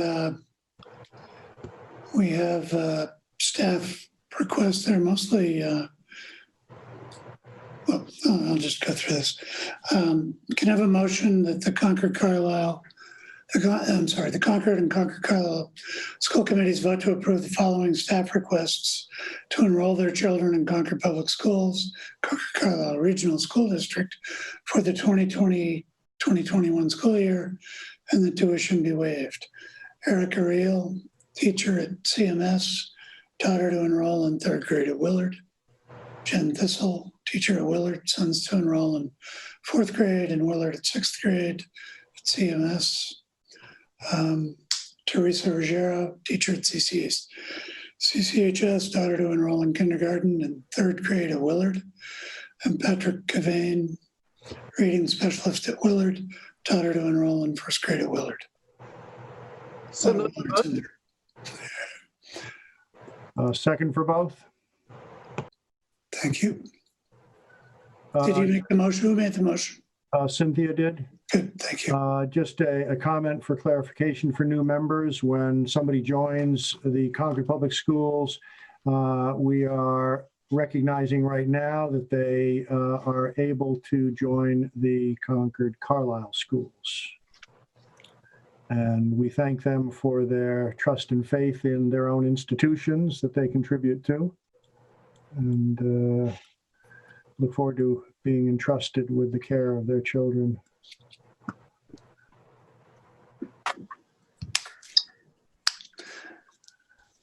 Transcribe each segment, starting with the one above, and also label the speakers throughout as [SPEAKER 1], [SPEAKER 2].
[SPEAKER 1] uh, we have uh, staff requests that are mostly, uh, well, I'll just go through this. Um, Can I have a motion that the Concord Carlisle, the Con- I'm sorry, the Concord and Concord Carlisle School Committees vote to approve the following staff requests to enroll their children in Concord Public Schools, Concord Carlisle Regional School District for the 2020, 2021 school year, and the tuition be waived. Erica Reel, teacher at CMS, taught her to enroll in third grade at Willard. Jen Thistle, teacher at Willard, sons to enroll in fourth grade and Willard at sixth grade at CMS. Um, Teresa Ruggiero, teacher at CCS, CCHS, daughter to enroll in kindergarten and third grade at Willard. And Patrick Cavane, reading specialist at Willard, taught her to enroll in first grade at Willard.
[SPEAKER 2] So moved.
[SPEAKER 1] It's in there.
[SPEAKER 3] Uh, Second for both?
[SPEAKER 1] Thank you. Did
[SPEAKER 3] Uh,
[SPEAKER 1] you make the motion? Who made the motion?
[SPEAKER 3] uh, Cynthia did.
[SPEAKER 1] Good, thank you.
[SPEAKER 3] Uh, Just a, a comment for clarification for new members. When somebody joins the Concord Public Schools, uh, we are recognizing right now that they uh, are able to join the Concord Carlisle schools. And we thank them for their trust and faith in their own institutions that they contribute to. And uh, look forward to being entrusted with the care of their children.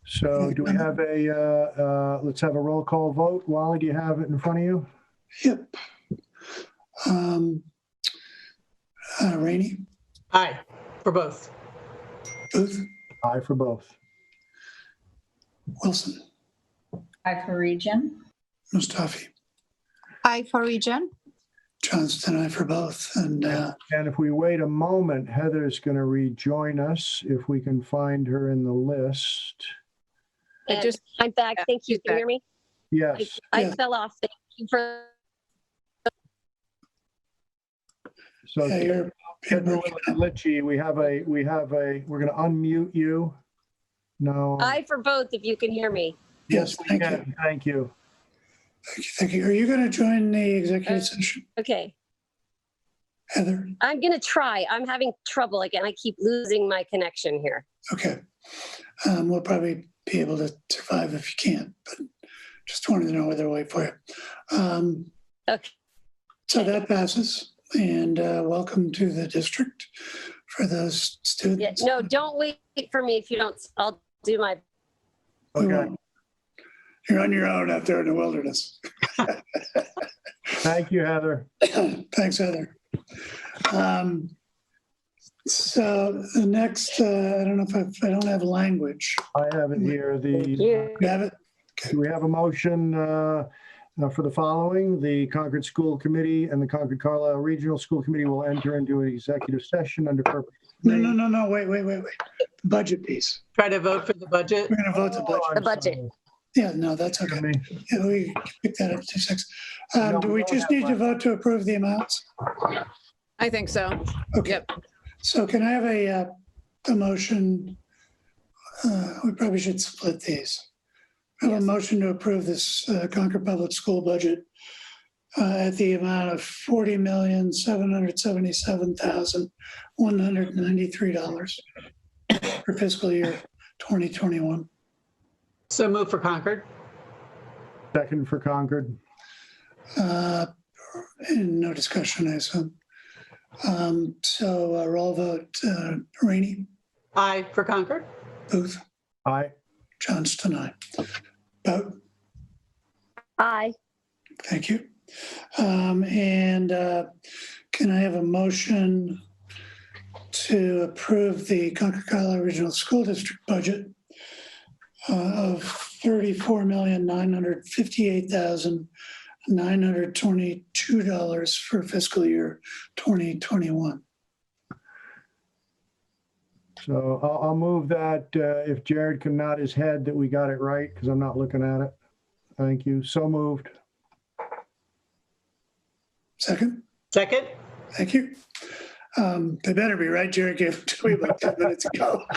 [SPEAKER 3] So do we have a, uh, uh, let's have a roll call vote. Wally, do you have it in front of you?
[SPEAKER 1] Yep. Um, uh, Rainey,
[SPEAKER 2] Aye, for both.
[SPEAKER 1] Booth,
[SPEAKER 3] Aye for both.
[SPEAKER 1] Wilson,
[SPEAKER 4] Aye for region.
[SPEAKER 1] Mustafi,
[SPEAKER 5] Aye for region.
[SPEAKER 1] Johnston, I for both. And uh,
[SPEAKER 3] And if we wait a moment, Heather's going to rejoin us if we can find her in the list.
[SPEAKER 6] I
[SPEAKER 7] And-
[SPEAKER 6] just,
[SPEAKER 7] I'm back.
[SPEAKER 6] Yeah,
[SPEAKER 7] Thank you.
[SPEAKER 6] she's back.
[SPEAKER 7] Can you
[SPEAKER 6] Oh,
[SPEAKER 7] hear me?
[SPEAKER 3] Yes,
[SPEAKER 7] I
[SPEAKER 1] Yeah.
[SPEAKER 7] fell off. Thank you for,
[SPEAKER 3] so
[SPEAKER 1] yeah, you're, you're
[SPEAKER 3] Heather
[SPEAKER 1] breaking up.
[SPEAKER 3] Litchi, we have a, we have a, we're going to unmute you. No.
[SPEAKER 6] Oh.
[SPEAKER 7] I for both, if you can hear me.
[SPEAKER 1] yes,
[SPEAKER 3] we
[SPEAKER 1] thank you.
[SPEAKER 3] can. Thank you.
[SPEAKER 1] Thank you, thank you. Are you going to join the executive session,
[SPEAKER 7] Okay.
[SPEAKER 1] Heather?
[SPEAKER 7] I'm going to try. I'm having trouble again. I keep losing my connection here.
[SPEAKER 1] Okay. Um, We'll probably be able to survive if you can't, but just wanted to know whether to wait for you. Um,
[SPEAKER 7] Okay.
[SPEAKER 1] So that passes and uh, welcome to the district for those
[SPEAKER 7] Yeah,
[SPEAKER 1] students.
[SPEAKER 7] no, don't wait for me if you don't. I'll do my,
[SPEAKER 1] We
[SPEAKER 3] Okay,
[SPEAKER 7] Mm.
[SPEAKER 1] won't. You're on your own out there in the wilderness.
[SPEAKER 3] thank you, Heather.
[SPEAKER 1] Thanks, Heather. Um, So the next, uh, I don't know if I, I don't have language.
[SPEAKER 3] I have it here.
[SPEAKER 7] thank
[SPEAKER 3] The
[SPEAKER 7] you.
[SPEAKER 1] You have it?
[SPEAKER 3] Do we have a motion uh, uh, for the following? The Concord School Committee and the Concord Carlisle Regional School Committee will enter into an executive session under purpose.
[SPEAKER 1] No, no, no, no, wait, wait, wait, wait. The Budget piece.
[SPEAKER 2] Try to vote for the budget.
[SPEAKER 1] We're going to vote the budget.
[SPEAKER 3] Oh,
[SPEAKER 7] The Oh, budget.
[SPEAKER 1] Yeah, no, that's okay. Yeah, we can pick that up to six.
[SPEAKER 3] No,
[SPEAKER 1] Um, do
[SPEAKER 3] we
[SPEAKER 1] we
[SPEAKER 3] don't
[SPEAKER 1] just
[SPEAKER 3] have
[SPEAKER 1] need to
[SPEAKER 3] one.
[SPEAKER 1] vote to approve the amounts?
[SPEAKER 5] I think so.
[SPEAKER 1] Okay.
[SPEAKER 5] Yep.
[SPEAKER 1] So can I have a, uh, a motion? Uh, we probably should split these. I have a motion to approve this uh, Concord Public School budget uh, at the amount of forty million, seven hundred seventy-seven thousand, one hundred ninety-three dollars for fiscal year twenty twenty-one.
[SPEAKER 2] So move for Concord.
[SPEAKER 3] Second for Concord.
[SPEAKER 1] Uh, And no discussion, I assume. Um, So uh, roll vote, uh, Rainey,
[SPEAKER 2] Aye for Concord.
[SPEAKER 1] Booth,
[SPEAKER 3] Aye.
[SPEAKER 1] Johnston, aye. Vote,
[SPEAKER 7] Aye.
[SPEAKER 1] thank you. Um, And uh, can I have a motion to approve the Concord Carlisle Regional School District budget uh, of $34,958,922 for fiscal year 2021?
[SPEAKER 3] So I'll, I'll move that uh, if Jared can nod his head that we got it right because I'm not looking at it. Thank you. So moved.
[SPEAKER 1] Second?
[SPEAKER 2] Second?
[SPEAKER 1] Thank you. Um, They better be, right, Jerry gave it to me about 10 minutes ago.